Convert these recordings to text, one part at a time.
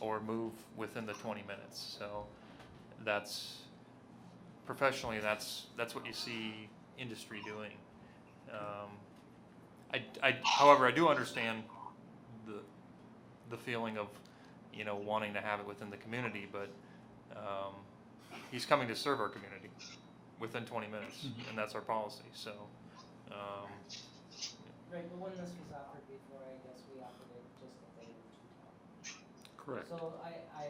or move within the twenty minutes, so that's, professionally, that's, that's what you see industry doing. Um, I, I, however, I do understand the, the feeling of, you know, wanting to have it within the community, but, um, he's coming to serve our community within twenty minutes, and that's our policy, so, um, Right, but when this was offered before, I guess we offered it just a day or two time. Correct. So I, I.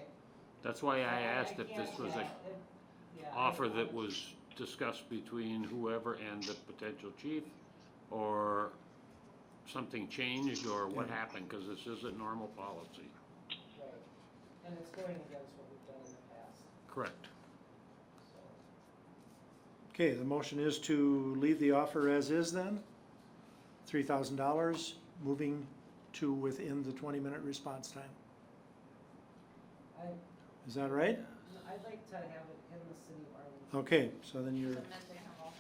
That's why I I- I asked if this can't- was a yeah, if- yeah, I- offer that was discussed between whoever and the potential chief, or something changed, or what happened, because this isn't normal policy. Right, and it's going against what we've done in the past, Correct. so. Okay, the motion is to leave the offer as is then, three thousand dollars, moving to within the twenty-minute response time. I, Is that right? I'd like to have it in the city of Arlington. Okay, so then you're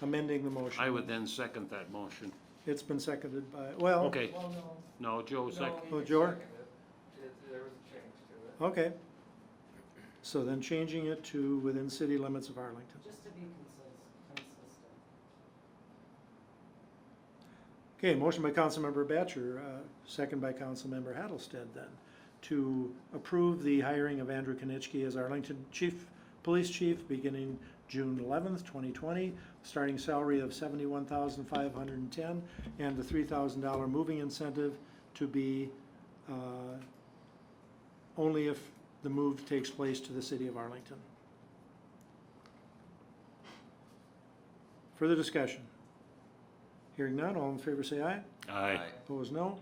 amending the motion. I would then second that motion. It's been seconded by, well, Okay, Well, no. no, Joe second, no, Oh, it's- George? It- There was a change to it. okay. So then changing it to within city limits of Arlington. Just to be consis- consistent. Okay, motion by Councilmember Batchor, uh, second by Councilmember Hattlestead then, to approve the hiring of Andrew Konitchke as Arlington Chief, Police Chief, beginning June eleventh, twenty twenty, starting salary of seventy-one thousand five hundred and ten, and the three thousand dollar moving incentive to be, uh, only if the move takes place to the city of Arlington. Further discussion? Hearing none, all in favor say aye. aye. Opposed, no.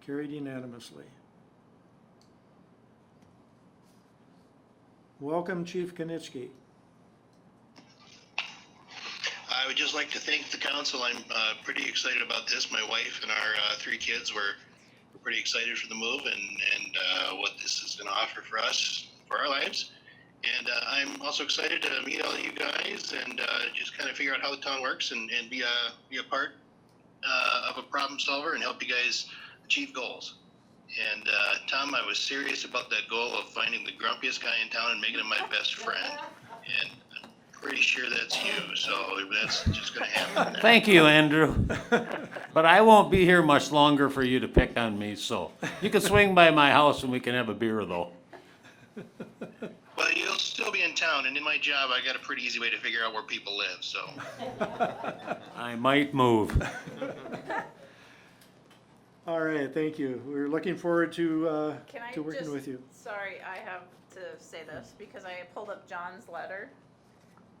Carried unanimously. Welcome Chief Konitski. I would just like to thank the council. I'm uh, pretty excited about this. My wife and our uh, three kids were were pretty excited for the move and and uh, what this is going to offer for us for our lives. And uh, I'm also excited to meet all of you guys and uh, just kind of figure out how the town works and, and be a be a part uh, of a problem solver and help you guys achieve goals. And uh, Tom, I was serious about that goal of finding the grumpiest guy in town and making him my best friend. And pretty sure that's you, so that's just gonna happen. Thank you, Andrew. But I won't be here much longer for you to pick on me, so you can swing by my house and we can have a beer, though. Well, you'll still be in town, and in my job, I got a pretty easy way to figure out where people live, so. I might move. All right, thank you. We're looking forward to, uh, Can I to working just- with you. Sorry, I have to say this because I pulled up John's letter.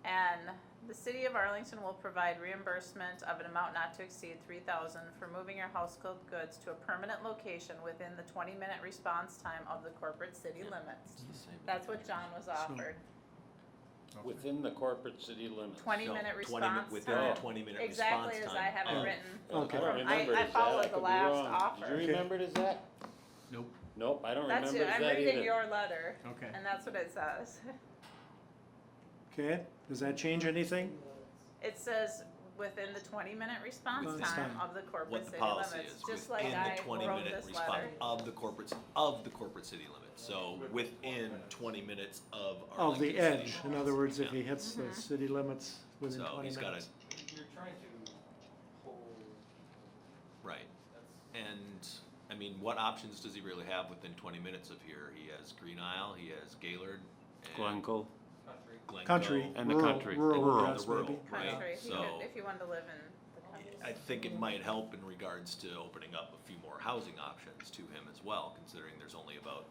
And the city of Arlington will provide reimbursement of an amount not to exceed three thousand for moving your household goods to a permanent location within the twenty-minute response time of the corporate city limits. That's what John was offered, Within the corporate city limits. twenty-minute Twenty, min- response within time. a twenty-minute response time. Exactly as I have Oh. it written. Okay. I I- remember it I as that. followed could the be last wrong. offer. Do you Okay. remember it as that? Nope. Nope, I don't That's remember it, it as I'm that reading either. your letter, Okay. and that's what it says. Okay, does that change anything? It says within the twenty-minute response Response time time. of the corporate What the city policy limits, is just like within I the wrote twenty-minute this response letter. of the corporate, of the corporate city limits, so within twenty minutes of Of Arlington the city. edge, in other words, if Yeah. he hits the Mhm. city limits within So twenty he's got a, minutes. You're trying to hold, right, that's. and, I mean, what options does he really have within twenty minutes of here? He has Green Isle, he has Gaylord, and Glencoe. Country. Glencoe. Country, And the rural, country. rural Rural, address the rural. maybe. Right, Country, if you so- could, if you wanted to live in the country. I think it might help in regards to opening up a few more housing options to him as well, considering there's only about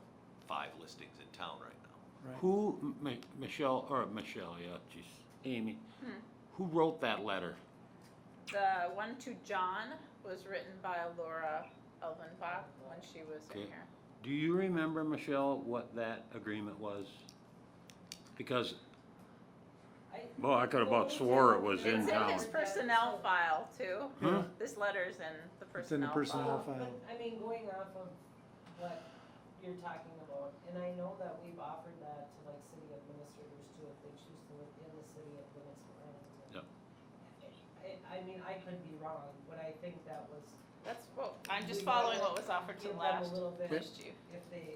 five listings in town right now. Right. Who, M- M- Michelle, or Michelle, yeah, geez, Amy, Hmm. who wrote that letter? The one to John was written by Laura Elvenbach when she was in Okay. here. Do you remember, Michelle, what that agreement was? Because, I- well, I could have about swore it was in It's in town. his personnel file too. Hmm? This letter's in the It's in the personnel personnel file. Well, file. Uh, But, I mean, going off of what you're talking about, and I know that we've offered that to like city administrators too, if they choose to live in the city of limits of Arlington. Yep. I, I mean, I could be wrong, but I think that was, That's, well, I'm just We following gotta what was offered to give them a last, little bit last chief. if they,